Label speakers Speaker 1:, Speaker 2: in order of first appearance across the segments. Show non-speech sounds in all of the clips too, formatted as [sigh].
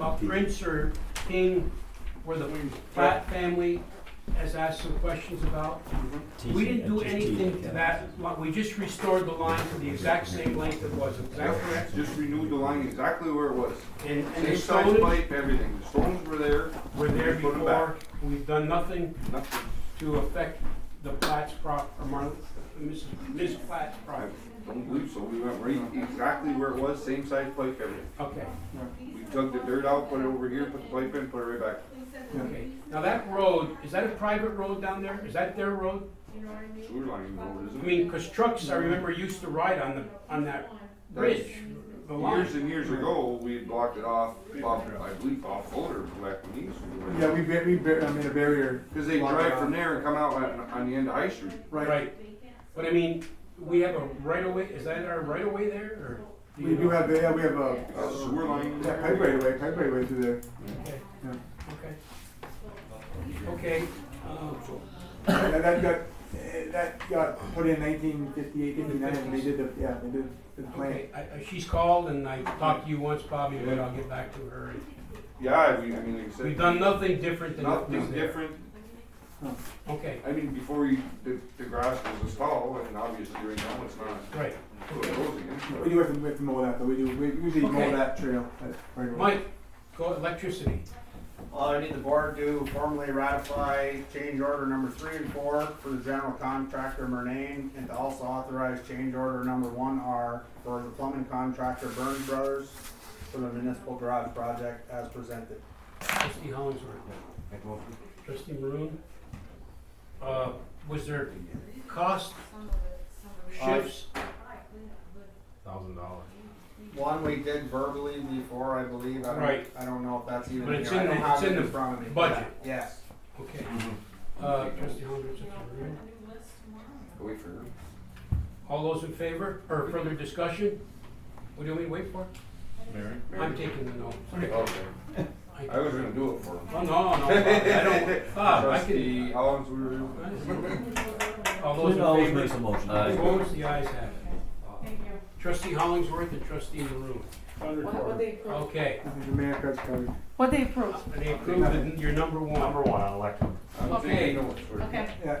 Speaker 1: Well, Prince or King or the Platt family has asked some questions about. We didn't do anything to that, lot. we just restored the line to the exact same length it was, is that correct?
Speaker 2: Just renewed the line exactly where it was.
Speaker 1: And, and the
Speaker 2: Same size
Speaker 1: stones
Speaker 2: pipe, everything. The stones were there,
Speaker 1: were there
Speaker 2: Put 'em back.
Speaker 1: before, we've done nothing
Speaker 2: nothing.
Speaker 1: to affect the Platt's prop, or Marla, Mrs., Ms. Platt's
Speaker 2: I
Speaker 1: property.
Speaker 2: don't believe so. We went right exactly where it was, same size pipe, everything.
Speaker 1: Okay,
Speaker 2: We dug the dirt out, put it over here, put the pipe in, put it right back.
Speaker 1: okay. Now that road, is that a private road down there? Is that their road?
Speaker 2: Sewer line road,
Speaker 1: I
Speaker 2: isn't it?
Speaker 1: mean, 'cause trucks, I remember, used to ride on the, on that bridge, the line.
Speaker 2: Years and years ago, we had blocked it off, off, I believe, off Fuller, back when he used to.
Speaker 3: Yeah, we, ba- we ba- I made a barrier.
Speaker 2: Cause they drive from there and come out on, on the end of High Street.
Speaker 3: Right.
Speaker 1: Right, but I mean, we have a right of way, is that our right of way there, or? you
Speaker 3: We do
Speaker 1: know?
Speaker 3: have, yeah, we have a,
Speaker 2: Uh, Sewer line.
Speaker 3: yeah, pipe right away, pipe right away through there.
Speaker 1: Okay,
Speaker 3: Yeah.
Speaker 1: okay. Okay, um,
Speaker 3: That, that got, eh, that got put in nineteen fifty-eight, fifty-nine, and they did the, yeah, they did the plan.
Speaker 1: okay, I, I- she's called and I talked to you once, Bobby, but I'll get back to her.
Speaker 2: Yeah, we, I mean, like I said.
Speaker 1: We've done nothing different than what was
Speaker 2: Nothing
Speaker 1: there.
Speaker 2: different.
Speaker 1: Okay,
Speaker 2: I mean, before you, the, the grass was as tall, and obviously right now it's not.
Speaker 1: great.
Speaker 3: We do have to, we have to mow that, though, we do, we usually mow
Speaker 1: Okay.
Speaker 3: that trail, that right away.
Speaker 1: Mike, go electricity.
Speaker 4: Uh, I need the board to formally ratify change order number three and four for the general contractor Murnane and to also authorize change order number one R for the plumbing contractor Burns Brothers for the municipal garage project as presented.
Speaker 1: Trustee Hollingsworth. Trustee Maroon. Uh, was there cost shifts?
Speaker 5: thousand dollars.
Speaker 4: One we did verbally before, I believe. I don't,
Speaker 1: Right.
Speaker 4: I don't know if that's even
Speaker 1: But
Speaker 4: here.
Speaker 1: it's
Speaker 4: I
Speaker 1: in
Speaker 4: don't
Speaker 1: the-
Speaker 4: have
Speaker 1: it's
Speaker 4: it
Speaker 1: in
Speaker 4: in
Speaker 1: the
Speaker 4: front of me.
Speaker 1: budget.
Speaker 4: Yes.
Speaker 1: Okay. Uh, trustee Hollingsworth, trustee Maroon.
Speaker 2: Wait for her.
Speaker 1: All those in favor, or further discussion? What do we wait for?
Speaker 5: Mary?
Speaker 1: I'm taking the notes.
Speaker 2: Okay.
Speaker 1: I-
Speaker 2: I was gonna do it for him.
Speaker 1: Oh, no, no, I
Speaker 2: [laughs]
Speaker 1: don't, Bob, I
Speaker 2: Trustee
Speaker 1: can.
Speaker 2: Hollins, we were.
Speaker 6: [laughs]
Speaker 1: All those
Speaker 7: Clint always
Speaker 1: in
Speaker 7: makes
Speaker 1: favor? Uh,
Speaker 7: a motion.
Speaker 1: Opposed, the ayes have it. Trustee Hollingsworth and trustee Maroon.
Speaker 6: What, what they approve?
Speaker 1: Okay,
Speaker 3: I think the mayor cuts covered.
Speaker 6: What they approve?
Speaker 1: and they approved it, your number one.
Speaker 5: one, I elect him.
Speaker 2: I'm
Speaker 1: Okay.
Speaker 2: taking notes for him.
Speaker 6: Okay.
Speaker 3: Yeah,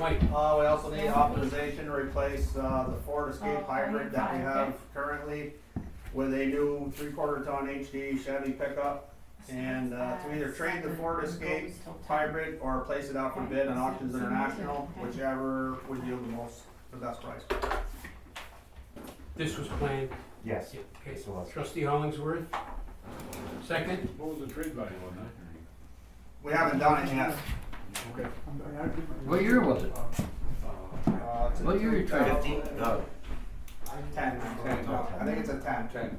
Speaker 1: Mike,
Speaker 4: Uh, we also need authorization to replace, uh, the Ford Escape hybrid that we have currently with a new three-quarter ton HD Chevy pickup. And, uh, to either trade the Ford Escape hybrid or place it out for bid on Auctions International, whichever would yield the most, the best price.
Speaker 1: this was planned.
Speaker 5: Yes.
Speaker 1: Okay,
Speaker 5: Yes, it was.
Speaker 1: trustee Hollingsworth. Second,
Speaker 5: What was the trade value on that?
Speaker 4: We haven't done it yet.
Speaker 3: I'm- I- I-
Speaker 7: What year was it?
Speaker 4: Uh, it's a
Speaker 7: What year you traded?
Speaker 4: 2000 Ten, I think. I think it's a ten.
Speaker 2: Ten.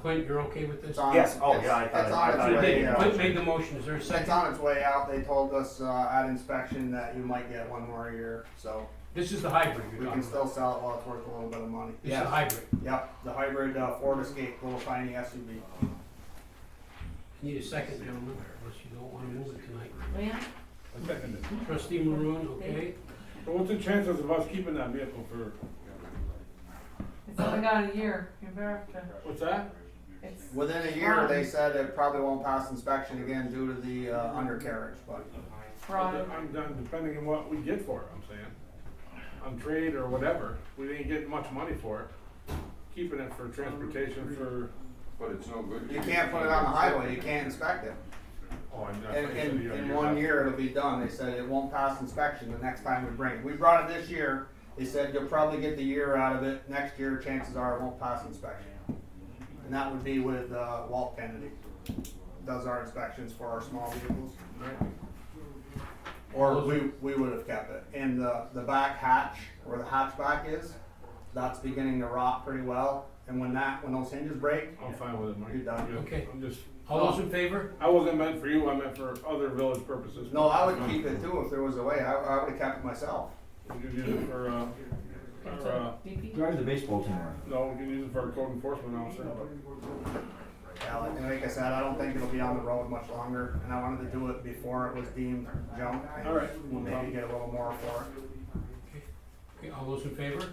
Speaker 1: Clint, you're okay with this?
Speaker 4: It's on-
Speaker 5: Yes. Oh,
Speaker 4: it's-
Speaker 5: yeah, I thought-
Speaker 4: It's on
Speaker 5: I
Speaker 4: its
Speaker 5: thought
Speaker 1: Clint
Speaker 5: you
Speaker 4: way,
Speaker 5: did.
Speaker 1: made-
Speaker 4: yeah.
Speaker 1: Clint made the motion, is there a
Speaker 4: It's
Speaker 1: second?
Speaker 4: on its way out. They told us uh, at inspection that you might get one more year, so
Speaker 1: This is the hybrid
Speaker 4: we
Speaker 1: you're talking
Speaker 4: can
Speaker 1: about.
Speaker 4: still sell it while it's worth a little bit of money.
Speaker 1: This is the hybrid.
Speaker 4: Yep, the hybrid uh, Ford Escape, little tiny SUV.
Speaker 1: Need a second, gentlemen, unless you don't wanna move it tonight.
Speaker 6: Yeah.
Speaker 1: Trustee Maroon, okay?
Speaker 5: What's the chances of us keeping that vehicle for,
Speaker 6: It's only got a year, you better, to-
Speaker 5: what's that?
Speaker 6: it's,
Speaker 4: Within a year, they said it probably won't pass inspection again due to the uh, undercarriage, but
Speaker 6: Right.
Speaker 5: I'm done, depending on what we get for it, I'm saying. On trade or whatever, we didn't get much money for it. Keeping it for transportation for,
Speaker 2: But it's no good.
Speaker 4: you can't put it on the highway. You can't inspect it.
Speaker 5: oh, I'm. I
Speaker 4: In,
Speaker 5: thought you said
Speaker 4: in,
Speaker 5: you-
Speaker 4: in
Speaker 5: you-
Speaker 4: one year, it'll be done. They said it won't pass inspection the next time we bring it. We brought it this year. They said you'll probably get the year out of it. Next year, chances are it won't pass inspection. And that would be with uh, Walt Kennedy. Does our inspections for our small vehicles. Or we, we would have kept it. And the, the back hatch, where the hatchback is, that's beginning to rot pretty well. And when that, when those hinges break,
Speaker 5: I'm fine with it, Mike.
Speaker 4: You're done.
Speaker 5: Yeah,
Speaker 1: Okay.
Speaker 5: I'm just,
Speaker 1: All those in favor?
Speaker 5: I wasn't meant for you, I meant for other village purposes.
Speaker 4: no, I would keep it too if there was a way. I, I would have kept it myself.
Speaker 5: We could use it for, uh,
Speaker 6: it's
Speaker 5: for, uh,
Speaker 6: a BP.
Speaker 7: Drive the baseball team around.
Speaker 5: no, we could use it for a code enforcement officer, but.
Speaker 4: Yeah, like, and like I said, I don't think it'll be on the road much longer, and I wanted to do it before it was deemed junk. and
Speaker 5: All right.
Speaker 4: Maybe get a little more for it.
Speaker 1: Okay, all those in favor?